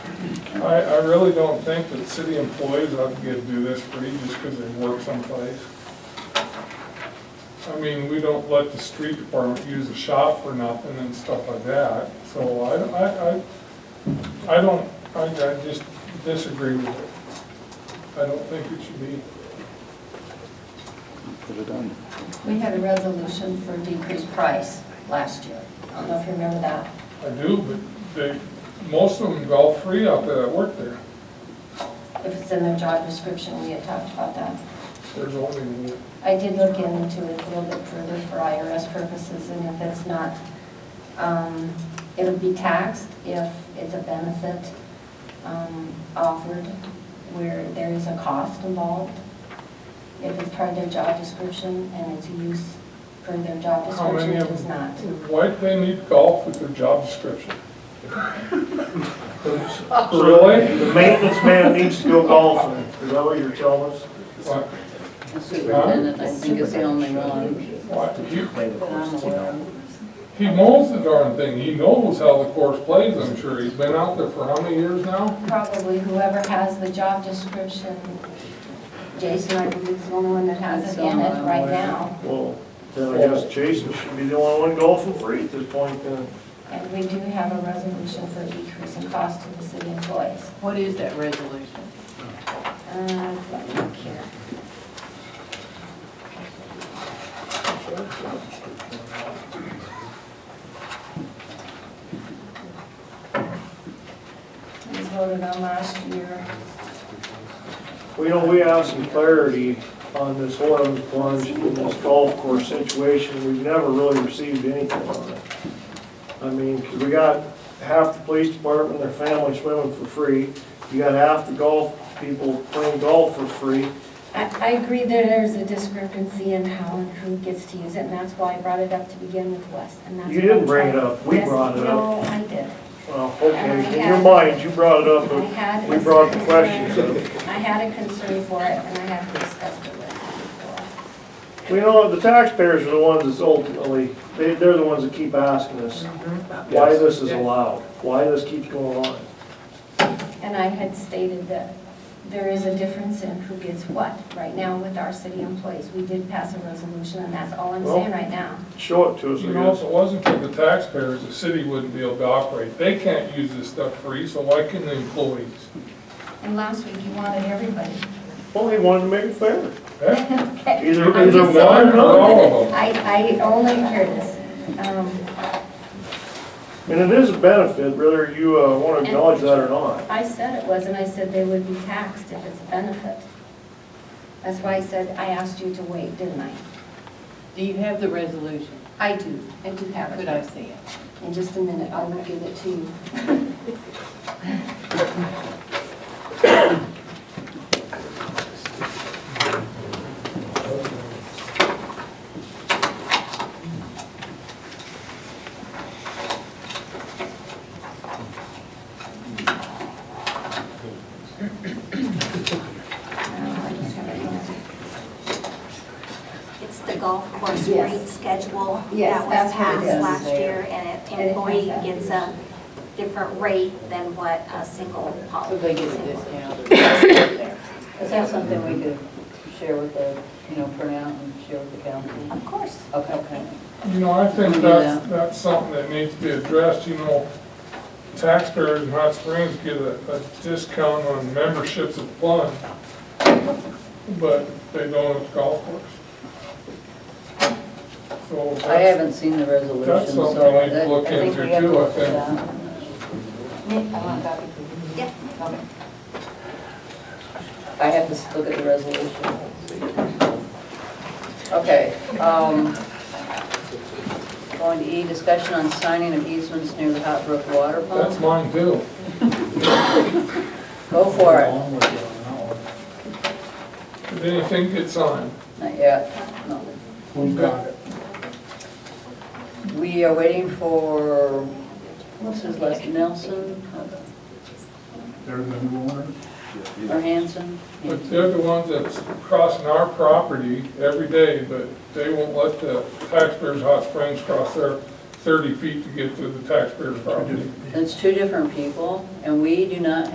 I, I really don't think that city employees ought to get to do this free just because they work someplace. I mean, we don't let the street department use the shop for nothing and stuff like that, so I, I, I, I don't, I, I just disagree with it. I don't think it should be. Put it on. We had a resolution for decreased price last year. I don't know if you remember that. I do, but they, most of them go free out there that work there. If it's in their job description, we had talked about that. There's only, I did look into it a little bit further for IRS purposes, and if it's not, um, it'll be taxed if it's a benefit um, offered where there is a cost involved. If it's part of their job description and it's a use per their job how description, many it of is not. them, why do they need golf with their job description? Really? The maintenance man needs to go golfing, is that what you're telling us? Why- The Superintendent, I think, is the only one why- he- that I'm aware of. He knows the darn thing, he knows how the course plays, I'm sure, he's been out there for how many years now? Probably whoever has the job description, Jason, I believe, is the only one that has it in it right now. Well, then I guess Jason should be the only one golfing free at this point then. And we do have a resolution for decrease in cost to the city employees. What is that resolution? Uh, let me look here. It was voted on last year. We know we have some clarity on this oil plunge and this golf course situation. We've never really received anything on it. I mean, 'cause we got half the police department, and their families swimming for free. You got half the golf people playing golf for free. I, I agree that there's a discrepancy in how and who gets to use it, and that's why I brought it up to begin with, Wes, and that's. You what didn't I'm bring it trying- up. We Yes, brought it up. No, I did. Well, okay, in your mind, you brought it up, I had. but Uh-huh. we a brought the concern- questions up. I had a concern for it, and I have discussed it with you before. We know the taxpayers are the ones that's ultimately, they, they're the ones that keep asking us why this is allowed, why this keeps going on. And I had stated that there is a difference in who gets what right now with our city employees. We did pass a resolution, and that's all I'm saying right now. Show it to us, You know, I if guess. it wasn't for the taxpayers, the city wouldn't be able to operate, they can't use this stuff free, so why can the employees? And last week, you wanted everybody. Well, he wanted to make it fair. Eh? Either, I'm either just one or saying. none. all of them. I, I only hear this. Um, And it is a benefit, whether you, uh, wanna acknowledge that or not. I said it was, and I said they would be taxed if it's a benefit. That's why I said, I asked you to wait, didn't I? Do you have the resolution? I do, I do have Could it. I see it? In just a minute, I will give it to you. It's the golf course Yes. rate schedule Yes, that that's was what it passed is. last year, And and an it employee has that. gets a different rate than what a single So poli- they get a single- discount. Is Is that something we could share with the, you know, print out and share with the council? Of course. Okay, okay. You know, I think Yeah. that's, that's something that needs to be addressed, you know, taxpayers in Hot Springs get a, a discount on memberships at Plunge, but they don't at the golf course. So I that's- haven't seen the resolution, That's so something I need to that- look I think into we have to too, I look at think. that. Yeah. I have to s- look at the resolution. Okay. um, Going to E, discussion on signing of easements near the Hot Brook Water that's Pump. mine too. Go for it. Did anything get signed? Not yet, no. Who got it? We are waiting for, what's his last, Nelson They're the new owners? or Hanson? But they're the ones that's crossing our property every day, but they won't let the taxpayers Hot Springs cross their thirty feet to get to the taxpayers' property. It's two different people, and we do not